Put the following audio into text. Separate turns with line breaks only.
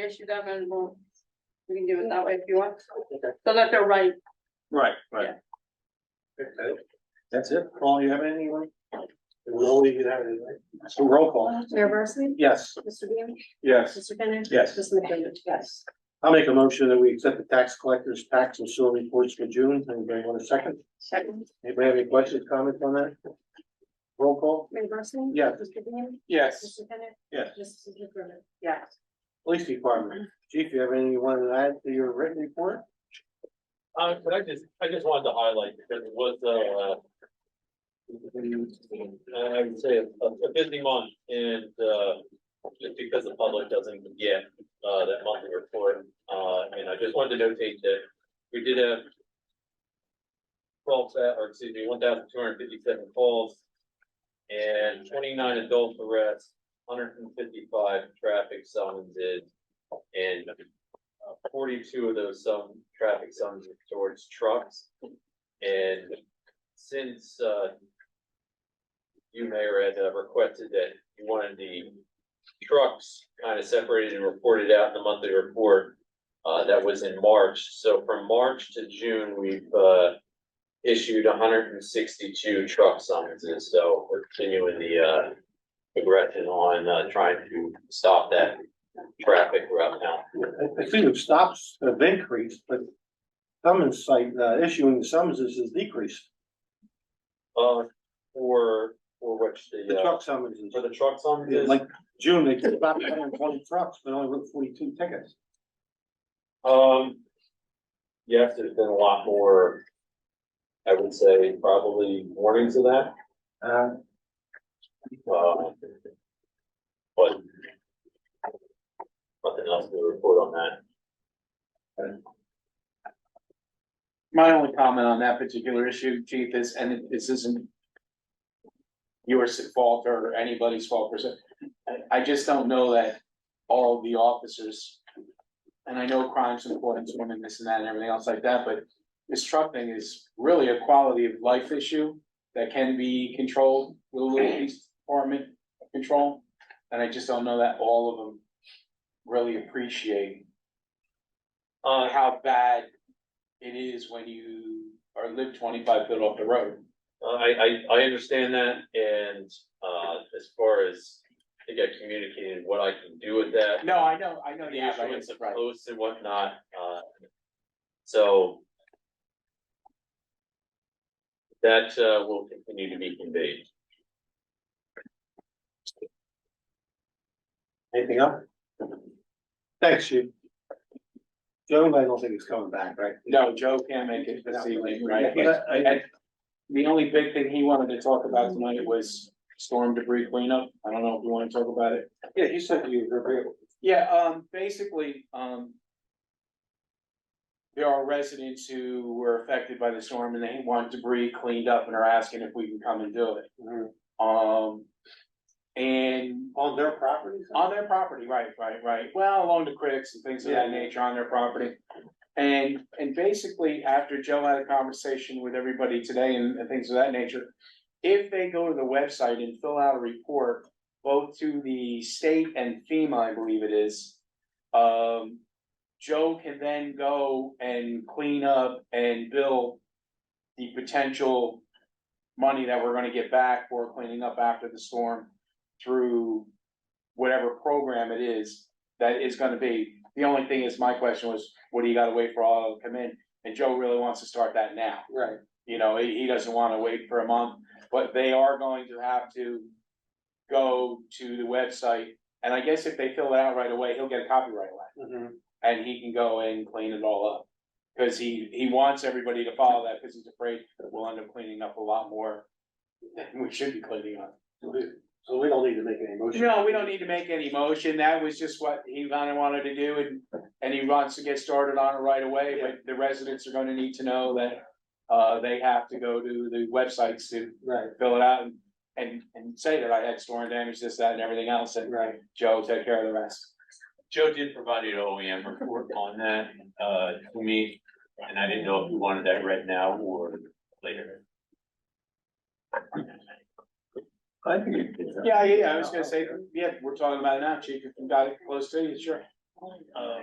issue them and we'll, we can do it that way if you want, so that they're right.
Right, right. That's it. Paul, you have anyone? So roll call.
Mayor Barsney?
Yes.
Mr. Beam?
Yes.
Mr. Bennett?
Yes.
Mr. McDermott? Yes.
I'll make a motion that we accept the tax collector's tax and sewer reports for June. Anybody want a second?
Second.
Anybody have any questions, comments on that? Roll call?
Mayor Barsney?
Yes.
Mr. Beam?
Yes.
Mr. Bennett?
Yes.
Mrs. McDermott? Yes.
Police Department. Chief, you have anything you wanted to add to your written report?
Uh, but I just, I just wanted to highlight, because it was, uh, uh, I would say a, a busy month and, uh, just because the public doesn't get, uh, that monthly report, uh, and I just wanted to notate that we did have twelve, thou- or excuse me, one thousand two hundred fifty-seven calls and twenty-nine adult arrests, hundred and fifty-five traffic summonses, and uh, forty-two of those some traffic signs are towards trucks. And since, uh, you, Mayor, had uh, requested that you wanted the trucks kind of separated and reported out in the monthly report, uh, that was in March. So from March to June, we've, uh, issued hundred and sixty-two truck summonses. So we're continuing the, uh, progression on, uh, trying to stop that traffic route now.
I, I think the stops have increased, but summons site, uh, issuing summonses has decreased.
Uh, for, for which
The
the, uh,
truck summonses.
for the trucks on
Yeah,
this,
Like June, they took about 120 trucks, but only wrote forty-two tickets.
um. Yes, there's been a lot more. I would say probably warnings of that,
Uh,
uh. But. Nothing else to report on that.
My only comment on that particular issue, chief, is, and it- this isn't yours at fault or anybody's fault per se. I, I just don't know that all of the officers, and I know crime's important, it's women, this and that and everything else like that, but this truck thing is really a quality of life issue that can be controlled with a little police department control. And I just don't know that all of them really appreciate
Uh,
how bad it is when you are live twenty-five foot off the road.
Uh, I, I, I understand that, and, uh, as far as, I think I communicated what I can do with that.
No, I know, I know
The
the issue
issuance
is
of
right.
posts and whatnot, uh, so. That, uh, will continue to be conveyed.
anything else? Thanks, Chief. Joe, I don't think he's coming back, right?
No, Joe can't make it this evening, right? uh,
Yeah, but I-
And The only big thing he wanted to talk about tonight was storm debris cleanup. I don't know if you wanna talk about it.
Yeah, you said you were agreeable.
Yeah, um, basically, um. There are residents who were affected by the storm and they want debris cleaned up and are asking if we can come and do it. Um, and
On their properties?
On their property, right, right, right. Well, along the critics and things of that
Yeah.
nature on their property. And, and basically, after Joe had a conversation with everybody today and, and things of that nature, if they go to the website and fill out a report, both to the state and FEMA, I believe it is, um, Joe can then go and clean up and bill the potential money that we're gonna get back for cleaning up after the storm through whatever program it is that is gonna be. The only thing is, my question was, what do you gotta wait for all of them to come in? And Joe really wants to start that now.
Right.
You know, he, he doesn't wanna wait for a month, but they are going to have to go to the website. And I guess if they fill it out right away, he'll get a copyright away
Mhm.
and he can go and clean it all up. Cause he, he wants everybody to follow that, cause he's afraid we'll end up cleaning up a lot more than we should be cleaning up.
So we don't need to make any motion.
No, we don't need to make any motion, that was just what he kinda wanted to do, and, and he wants to get started on it right away, but the residents are gonna need to know that. Uh, they have to go to the websites to
Right,
fill it out and, and, and say that I had storm damage, this, that, and everything else, and
right.
Joe take care of the rest.
Joe did provide an OEM report on that, uh, to me, and I didn't know if you wanted that read now or later.
I think you did.
Yeah, yeah, yeah, I was gonna say, yeah, we're talking about it now, chief, if you got it close to you, sure.
Oh, yeah.
Um,
uh,